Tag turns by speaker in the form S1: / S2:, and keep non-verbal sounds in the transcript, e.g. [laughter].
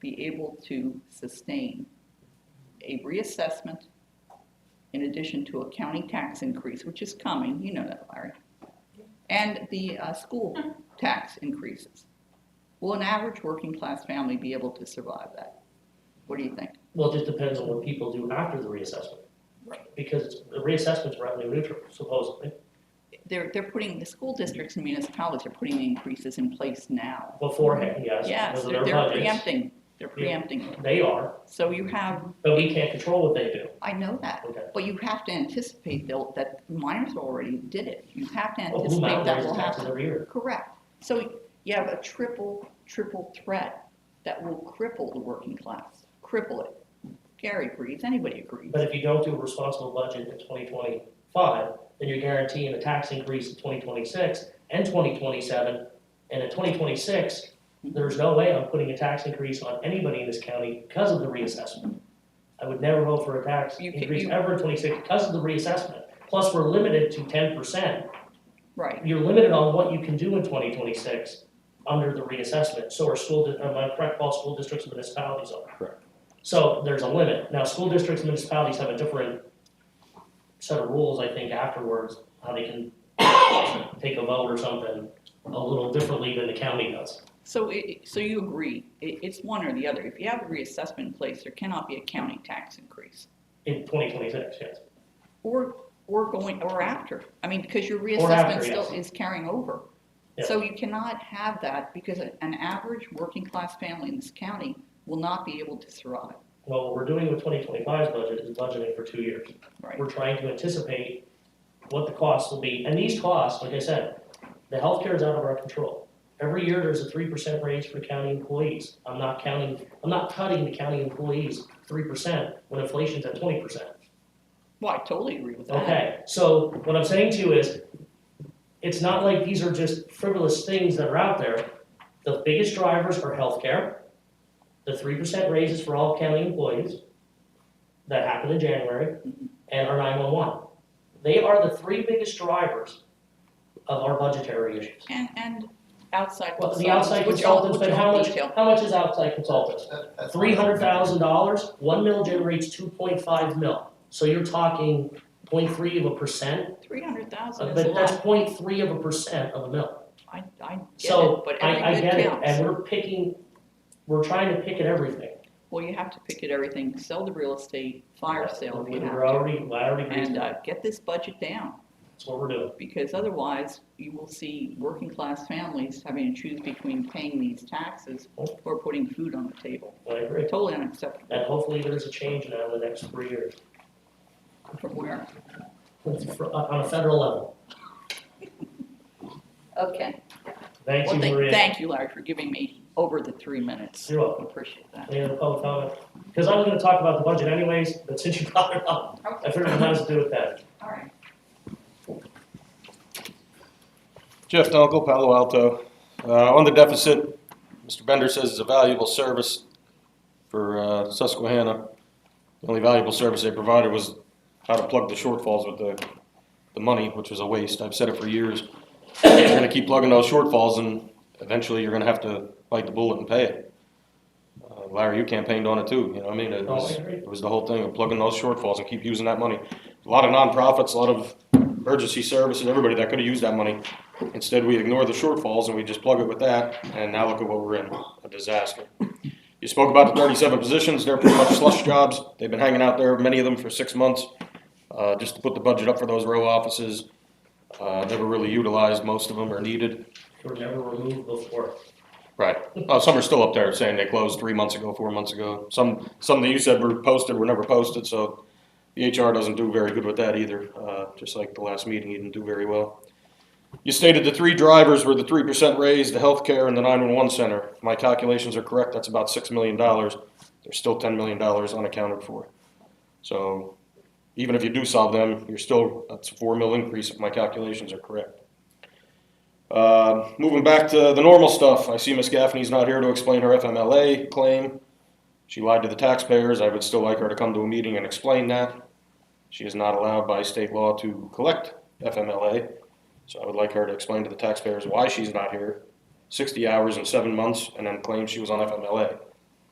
S1: be able to sustain a reassessment in addition to a county tax increase, which is coming, you know that, Larry, and the uh, school tax increases. Will an average working-class family be able to survive that? What do you think?
S2: Well, it just depends on what people do after the reassessment. Because the reassessment's revenue neutral supposedly.
S1: They're, they're putting, the school districts and municipalities are putting the increases in place now.
S2: Beforehand, yes,
S1: Mm-hmm. Yes,
S2: because of
S1: they're
S2: their
S1: they're
S2: budgets.
S1: preempting, they're preempting. it.
S2: They are,
S1: So you have,
S2: but we can't control what they do.
S1: I know that,
S2: Okay.
S1: but you have to anticipate though, that miners already did it. You have to
S2: Well, Blue
S1: anticipate
S2: Mountain
S1: that
S2: raises
S1: will
S2: taxes
S1: happen.
S2: every year.
S1: Correct. So you have a triple, triple threat that will cripple the working class, cripple it. Gary agrees, anybody agrees.
S2: But if you don't do a responsible budget in twenty twenty-five, then you're guaranteeing a tax increase in twenty twenty-six and twenty twenty-seven. And in twenty twenty-six, there's no way I'm putting a tax increase on anybody in this county because of the reassessment. I would never vote for a tax
S1: You can-
S2: increase
S1: you-
S2: ever in twenty-six because of the reassessment. Plus, we're limited to ten percent.
S1: Right,
S2: You're limited on what you can do in twenty twenty-six under the reassessment, so are school, di- am I correct, all school districts and municipalities are?
S3: Correct.
S2: So there's a limit. Now, school districts and municipalities have a different set of rules, I think, afterwards, how they can take a vote or something a little differently than the county does.
S1: so it, so you agree, it, it's one or the other. If you have a reassessment in place, there cannot be a county tax increase.
S2: In twenty twenty-six, yes.
S1: Or, or going, or after. I mean, because your
S2: Or after,
S1: reassessment still
S2: yes.
S1: is carrying over. So you cannot have that because a- an average working-class family in this county will not be able to survive,
S2: Well, what we're doing with 2025's budget is budgeting for two years.
S1: right?
S2: We're trying to anticipate what the costs will be, and these costs, like I said, the healthcare is out of our control. Every year, there's a three percent raise for county employees. I'm not counting, I'm not cutting the county employees three percent when inflation's at twenty percent.
S1: Well, I totally agree with that.
S2: Okay, so what I'm saying to you is, it's not like these are just frivolous things that are out there. The biggest drivers are healthcare, the three percent raises for all county employees that happened in January, and our nine-one-one. They are the three biggest drivers of our budgetary issues.
S1: And, and outside
S2: Well, the outside
S1: consultants, which all,
S2: consultants,
S1: which
S2: but how
S1: all
S2: much,
S1: detail.
S2: how much is outside consultants?
S4: That- that's-
S2: Three hundred thousand dollars, one mil generates two point five mil. So you're talking 0.3 of a percent
S1: Three hundred thousand
S2: uh,
S1: is a
S2: But that's
S1: lot.
S2: 0.3 of a percent of a mill.
S1: I, I get it,
S2: So
S1: but
S2: I, I
S1: every bit
S2: get it, and
S1: counts.
S2: we're picking, we're trying to pick at everything.
S1: Well, you have to pick at everything, sell the real estate, fire sale if
S2: We-
S1: you
S2: We're
S1: have
S2: already, I already
S1: to.
S2: agree with
S1: And, uh,
S2: that.
S1: get this budget down.
S2: That's what we're doing.
S1: because otherwise you will see working-class families having to choose between paying these taxes or putting food on the table.
S2: I agree.
S1: Totally unacceptable
S2: And hopefully there's a change now in the next three years,
S1: from where.
S2: It's fr- on a federal level.
S1: Okay.
S2: Thank
S1: Well,
S2: you,
S1: thank-
S2: Maria.
S1: Thank you, Larry, for giving me over the three minutes.
S2: You're welcome.
S1: Appreciate that.
S2: Any other public comment? Because I was gonna talk about the budget anyways, but since you brought it up, I figured it might as well do it then.
S1: All right.
S3: Jeff Dunkel, Palo Alto. Uh, On the deficit, Mr. Bender says it's a valuable service for uh, Susquehanna. The only valuable service they provided was how to plug the shortfalls with the, the money, which was a waste. I've said it for years. [coughs] You're gonna keep plugging those shortfalls and eventually you're gonna have to bite the bullet and pay it. Uh, Larry, you campaigned on it too, you know, what I mean, it
S2: No, I
S3: was,
S2: agree.
S3: it was the whole thing of plugging those shortfalls and keep using that money. A lot of nonprofits, a lot of emergency services, everybody that could have used that money. Instead, we ignore the shortfalls and we just plug it with that, and now look at what we're in, a disaster. You spoke about the thirty-seven positions, they're pretty much slush jobs, they've been hanging out there, many of them for six months, uh, just to put the budget up for those row offices. Uh, never really utilized, most of them are needed.
S2: They We're never removed before.
S3: Right, uh, some are still up there saying they closed three months ago, four months ago, some, some that you said were posted were never posted, so the HR doesn't do very good with that either, uh, just like the last meeting, he didn't do very well. You stated the three drivers were the three percent raise, the healthcare, and the nine-one-one center. If my calculations are correct, that's about six million dollars. There's still ten million dollars unaccounted for. So even if you do solve them, you're still, that's a four mil increase if my calculations are correct. Uh, moving back to the normal stuff, I see Miss Gaffney's not here to explain her FMLA claim. She lied to the taxpayers. I would still like her to come to a meeting and explain that. She is not allowed by state law to collect FMLA. So I would like her to explain to the taxpayers why she's not here. Sixty hours in seven months and then claim she was on FMLA.